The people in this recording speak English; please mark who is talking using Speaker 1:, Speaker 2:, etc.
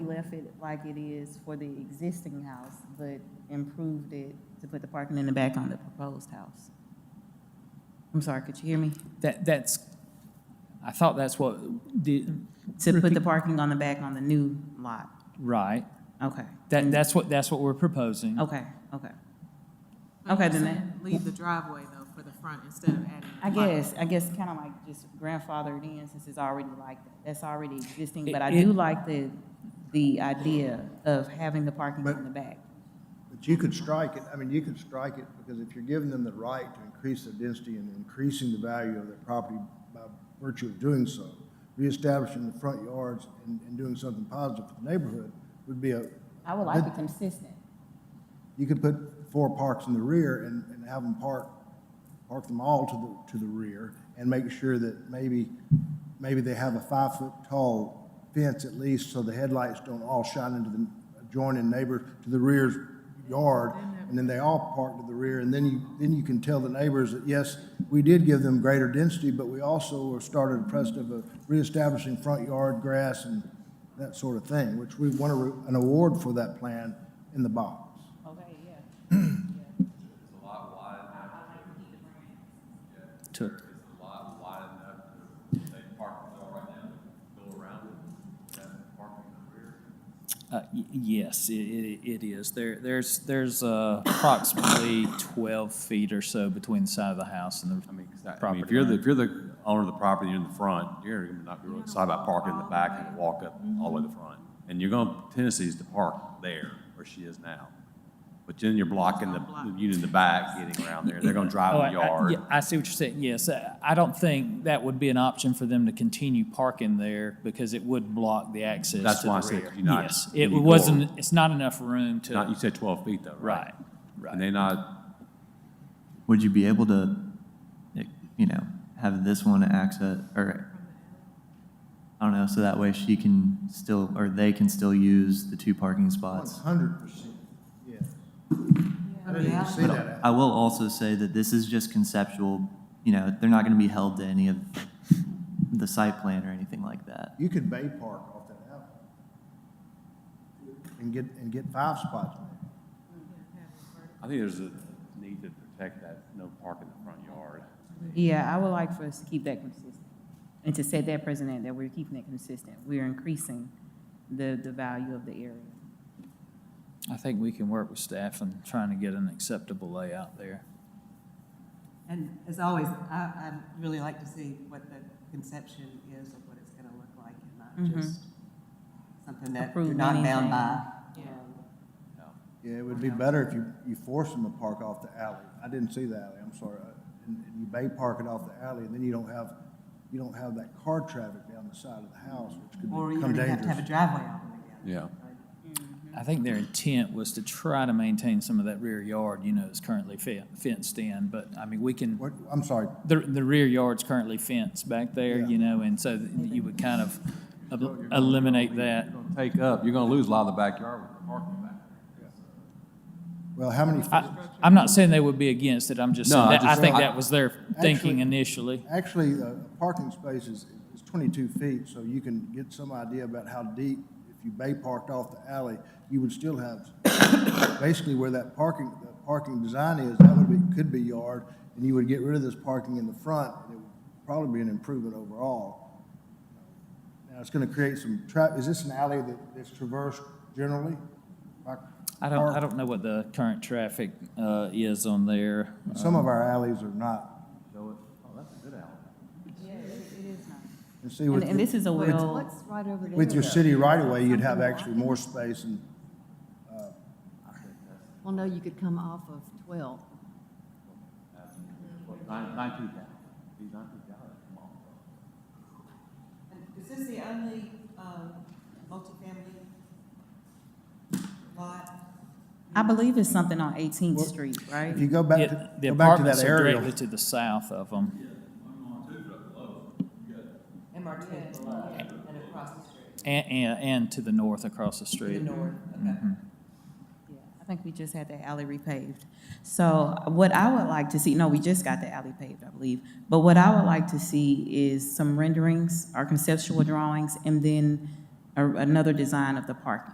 Speaker 1: left it like it is for the existing house, but improved it to put the parking in the back on the proposed house. I'm sorry, could you hear me?
Speaker 2: That, that's, I thought that's what, the,
Speaker 1: To put the parking on the back on the new lot.
Speaker 2: right,
Speaker 1: Okay,
Speaker 2: that, that's what, that's what we're proposing.
Speaker 1: okay, okay. Okay, then that-
Speaker 3: Leave the driveway though for the front instead of adding.
Speaker 1: I guess, I guess kind of like just grandfathered in since it's already like, that. that's already existing, but I
Speaker 2: It-
Speaker 1: do
Speaker 2: it-
Speaker 1: like the, the idea of having the parking
Speaker 4: But-
Speaker 1: on the back.
Speaker 4: But you could strike it, I mean, you could strike it, because if you're giving them the right to increase their density and increasing the value of their property by virtue of doing so, reestablishing the front yards and, and doing something positive for the neighborhood would be a,
Speaker 1: I would like it consistent.
Speaker 4: you could put four parks in the rear and, and have them park, park them all to the, to the rear and make sure that maybe, maybe they have a five-foot tall fence at least, so the headlights don't all shine into the adjoining neighbor to the rear's yard, and then they all park to the rear, and then you, then you can tell the neighbors that, yes, we did give them greater density, but we also started a precedent of uh, reestablishing front yard grass and that sort of thing, which we won a re- an award for that plan in the box.
Speaker 1: Okay, yeah.
Speaker 2: To- Uh, y- yes, it, it, it is. There, there's, there's uh, approximately twelve feet or so between the side of the house and
Speaker 5: I
Speaker 2: the
Speaker 5: mean, 'cause that- I mean,
Speaker 2: property.
Speaker 5: if you're the,
Speaker 2: line.
Speaker 5: if you're the owner of the property, you're in the front, you're gonna not gonna decide about parking in the back and walk up all the way to the front. And you're going, tendencies to park there where she is now. But then you're blocking the, the unit in the back getting around there. They're gonna drive
Speaker 2: Oh,
Speaker 5: in
Speaker 2: I-
Speaker 5: the
Speaker 2: I-
Speaker 5: yard.
Speaker 2: yeah, I see what you're saying, yes. I I don't think that would be an option for them to continue parking there because it would block the access to the rear.
Speaker 5: That's why I said you're not-
Speaker 2: Yes,
Speaker 5: you
Speaker 2: it
Speaker 5: need to go
Speaker 2: wasn't, it's not enough room
Speaker 5: Not, you
Speaker 2: to,
Speaker 5: said twelve feet though,
Speaker 2: right,
Speaker 5: right?
Speaker 2: right.
Speaker 5: And they not,
Speaker 6: Would you be able to, eh, you know, have this one access, or, I don't know, so that way she can still, or they can still use the two parking
Speaker 4: One
Speaker 6: spots?
Speaker 4: hundred percent, yeah. I didn't even see
Speaker 6: But
Speaker 4: that.
Speaker 6: I will also say that this is just conceptual, you know, they're not gonna be held to any of the site plan or anything like that.
Speaker 4: You could bay park off that alley and get, and get five spots.
Speaker 5: I think there's a need to protect that, no parking in the front yard.
Speaker 1: Yeah, I would like for us to keep that consistent and to set that precedent that we're keeping it consistent. We're increasing the, the value of the area.
Speaker 2: I think we can work with staff and trying to get an acceptable layout there.
Speaker 7: And as always, I, I'd really like to see what the conception is of what it's gonna look like and
Speaker 1: Mhm.
Speaker 7: not just something that you're
Speaker 1: Approve
Speaker 7: not bound by.
Speaker 3: anything. Yeah.
Speaker 7: Um,
Speaker 4: Yeah, it would be better if you, you force them to park off the alley. I didn't see the alley, I'm sorry. I- And, and you bay park it off the alley, and then you don't have, you don't have that car traffic down the side of the house, which could
Speaker 7: Or you
Speaker 4: become
Speaker 7: don't even have to have a
Speaker 4: dangerous.
Speaker 7: driveway all the way down.
Speaker 5: Yeah.
Speaker 2: I think their intent was to try to maintain some of that rear yard, you know, it's currently fe- fenced in, but, I mean, we can,
Speaker 4: What, I'm sorry,
Speaker 2: the, the rear yard's currently fenced back there,
Speaker 4: Yeah.
Speaker 2: you know, and so you would kind of el- eliminate that.
Speaker 5: You're gonna Take up, you're gonna lose a lot of the backyard with the parking back.
Speaker 4: well, how many,
Speaker 2: I, I'm not saying they would be against it, I'm just
Speaker 5: No,
Speaker 2: saying,
Speaker 5: I
Speaker 2: that- I
Speaker 5: just-
Speaker 2: think
Speaker 5: I-
Speaker 2: that was their thinking
Speaker 4: Actually-
Speaker 2: initially.
Speaker 4: Actually, a parking space is, is twenty-two feet, so you can get some idea about how deep, if you bay parked off the alley, you would still have, basically where that parking, that parking design is, that would be, could be yard, and you would get rid of this parking in the front, and it would probably be an improvement overall. Now, it's gonna create some tra, is this an alley that, that's traversed generally? Like,
Speaker 2: I don't,
Speaker 4: our-
Speaker 2: I don't know what the current traffic, uh, is on there.
Speaker 4: Some of our alleys are not,
Speaker 5: So, it- oh, that's a good alley.
Speaker 1: Yeah, it is nice.
Speaker 4: and see
Speaker 1: And,
Speaker 4: with,
Speaker 1: and this is a well,
Speaker 8: What's right over there?
Speaker 4: with your city right-of-way, you'd have actually more space and
Speaker 8: Well, no, you could come off of 12.
Speaker 5: Nine- Nineteenth Alley. These Nineteenth Alley, come on.
Speaker 7: And Um, Is this the only, um, multifamily lot?
Speaker 1: I believe it's something on Eighteenth Street, right?
Speaker 4: If you go back
Speaker 2: It-
Speaker 4: to,
Speaker 2: The
Speaker 4: go back to
Speaker 2: apartments
Speaker 4: that
Speaker 2: are
Speaker 4: area,
Speaker 2: directly to the south of them.
Speaker 7: MR two below and across the street.
Speaker 2: And, and, and to the north across the
Speaker 7: To the
Speaker 2: street.
Speaker 7: north, okay.
Speaker 1: Mm-hmm. Yeah, I think we just had the alley repaved. So what I would like to see, no, we just got the alley paved, I believe. But what I would like to see is some renderings, our conceptual drawings, and then
Speaker 7: a- another design of the parking.